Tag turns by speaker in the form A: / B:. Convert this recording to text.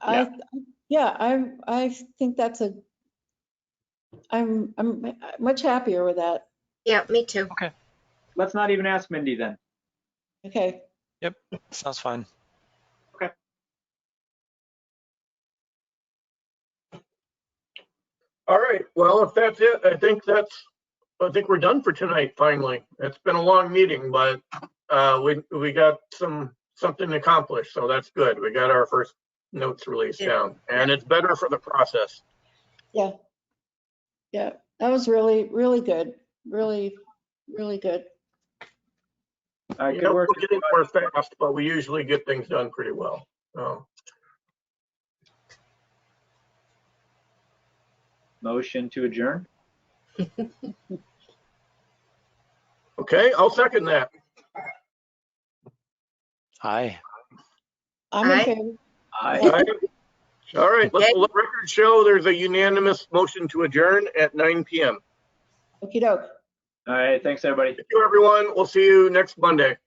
A: I, yeah, I, I think that's a, I'm, I'm much happier with that.
B: Yeah, me too.
C: Let's not even ask Mindy then.
A: Okay,
D: Sounds fine.
E: All right, well, if that's it, I think that's, I think we're done for tonight, finally. It's been a long meeting, but uh, we, we got some, something accomplished, so that's good. We got our first notes released down, and it's better for the process.
A: yeah, that was really, really good, really, really good.
C: I
E: You
C: could
E: know,
C: work,
E: We're getting more fast, but we usually get things done pretty well, so.
C: motion to adjourn.
E: Okay, I'll second that.
D: Hi.
A: I'm in
B: Aye.
A: favor.
C: Aye.
E: All right. All right, let the record show there's a unanimous motion to adjourn at 9 PM.
A: Okey doke.
C: All right, thanks, everybody.
E: Thank you, everyone. We'll see you next Monday.